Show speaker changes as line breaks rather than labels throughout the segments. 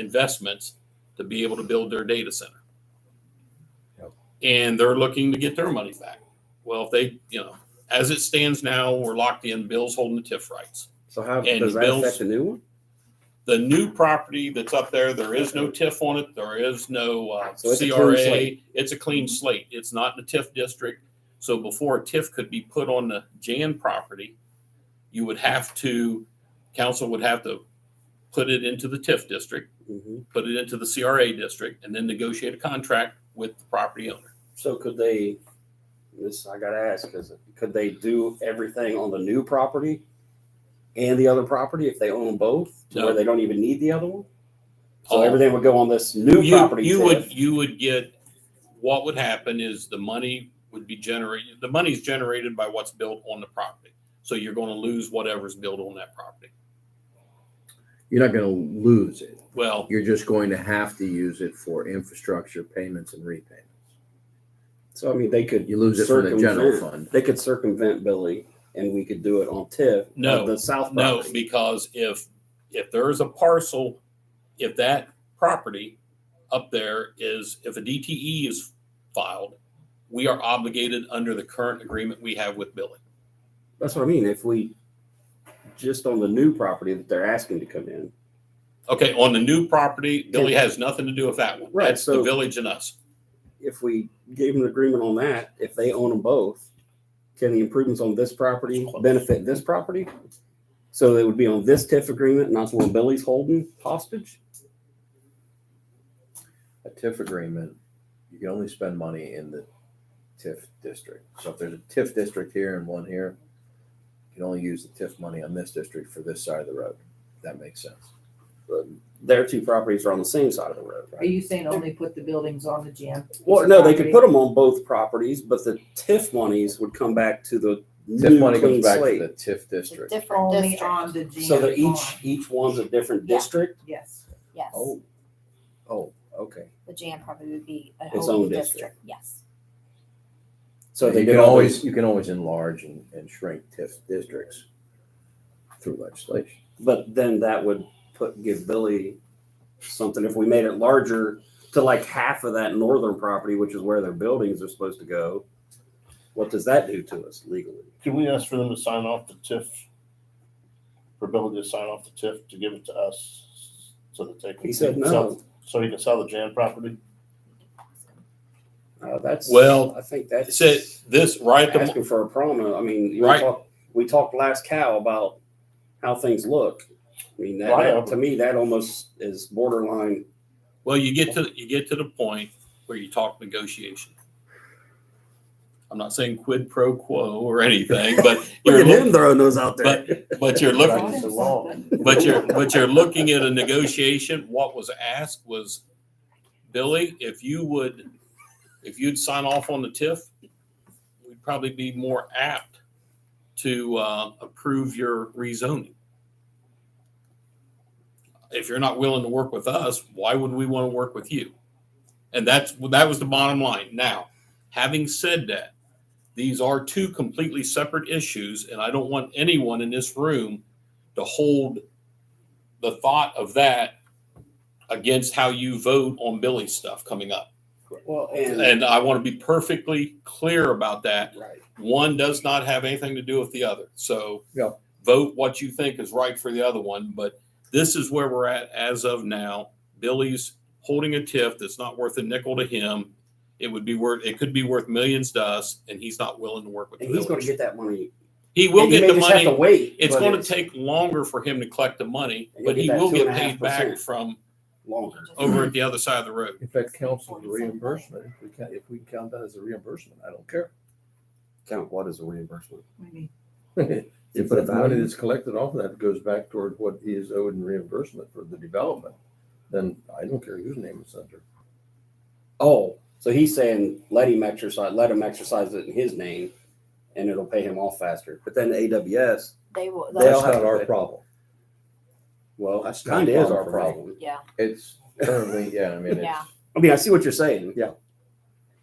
investments to be able to build their data center.
Yep.
And they're looking to get their money back. Well, if they, you know, as it stands now, we're locked in, Bill's holding the TIF rights.
So how
And
does that
Bill's-
affect the new one?
The new property that's up there, there is no TIF on it, there is no uh,
So it's a clean
CRA.
slate. Mm-hmm.
It's a clean slate. It's not in the TIF district. So before a TIF could be put on the Jan property, you would have to, council would have to put it into the TIF district.
Mhm.
put it into the CRA district, and then negotiate a contract with the property owner.
So could they? This I gotta ask because could they do everything on the new property and the other property if they own them both, to
No.
where they don't even need the other one? So
All-
everything would go on this new
You-
property.
You
too.
would, you would get, what would happen is the money would be generated, the money's generated by what's built on the property. So you're gonna lose whatever's built on that property.
You're not going to lose it.
Well,
You're just going to have to use it for infrastructure payments and repayments.
So I mean, they could
You lose it from the general
circumvent-
fund.
They could circumvent Billy, and we could do it on TIF. of
No.
the south
no,
property.
because if, if there is a parcel, if that property up there is, if a DTE is filed, we are obligated under the current agreement we have with Billy.
That's what I mean. If we just on the new property that they're asking to come in,
Okay, on the new property, Billy has nothing to do with that one.
Right,
That's the
so-
village and us.
if we gave them an agreement on that, if they own them both, can the improvements on this property benefit this property? So they would be on this TIF agreement, not the one Billy's holding hostage.
A TIF agreement, you can only spend money in the TIF district. So if there's a TIF district here and one here, you can only use the TIF money on this district for this side of the road. That makes sense.
Their two properties are on the same side of the road,
Are
right?
you saying only put the buildings on the gym?
Well, no, they could put them on both properties, but the TIF monies would come back to the
TIF
new
money
clean
comes back to
slate.
the TIF district.
Different
Only
district.
on the gym.
So they're each,
lawn.
each one's a different
Yeah.
district?
Yes.
Yes,
Oh, oh, okay.
the jam probably would be a
Its
whole
own
new
district.
district, yes.
So they
you
did
can
all
always,
these,
you can always enlarge and, and shrink TIF districts through legislation.
but then that would put, give Billy something, if we made it larger to like half of that northern property, which is where their buildings are supposed to go, what does that do to us legally?
Can we ask for them to sign off the TIF? For Billy to sign off the TIF to give it to us so that they can.
He said
sell-
no,
So he can sell the Jan property?
Uh, that's.
Well,
I think that's.
So this right at the, mo-
Asking for a promo, I mean, you wanna
Right.
talk- we talked last cow about how things look. I mean, that-
Well, I
that,
know.
to me, that almost is borderline,
well, you get to, you get to the point where you talk negotiation. I'm not saying quid pro quo or anything, but
look
you're,
at
loo-
him throwing those out there.
but you're
Right.
looking,
Bought him
so long.
something.
but you're, but you're looking at a negotiation. What was asked was, Billy, if you would, if you'd sign off on the TIF, we'd probably be more apt to uh, approve your rezoning. If you're not willing to work with us, why would we want to work with you? And that's that was the bottom line. Now, having said that, these are two completely separate issues, and I don't want anyone in this room to hold the thought of that against how you vote on Billy's stuff coming up.
Well, and,
And I want to be perfectly clear about that.
right.
One does not have anything to do with the other. So
Yep.
vote what you think is right for the other one. But this is where we're at as of now. Billy's holding a tiff that's not worth a nickel to him. It would be worth, it could be worth millions to us, and he's not willing to work with the
And he's going to
village.
get that money.
He will
And he
get
may
the
just
money.
Have to wait.
It's
but
going to take longer for him to collect the money,
And you'll
but
get
he
that
will
two
get
and a half
paid back
percent.
from
longer.
over at the other side of the road.
If that counts as a
47 million.
reimbursement, if we can, if we count that as a reimbursement, I don't care.
Count what is a reimbursement?
We need
If
Is the
the money
value-
that's collected off of that goes back toward what he is owed in reimbursement for the development, then I don't care whose name it's under.
Oh, so he's saying let him exercise, let him exercise it in his name, and it'll pay him off faster. But then AWS,
They will,
They'll
That's
they'll-
have
not
to
our
pay.
problem.
well, that's
That's not
kind of
a
is our
problem for
problem.
me.
yeah,
It's currently, yeah, I mean,
Yeah.
it's,
I mean, I see what you're saying.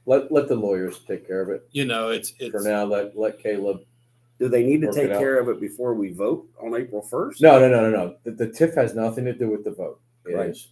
let, let the lawyers take care of it.
You know, it's,
For
it's,
now, let, let Caleb,
Do they need to
Work
take
it out.
care of it before we vote on April first?
no, no, no, no, no. The, the TIF has nothing to do with the vote. It
Right.
is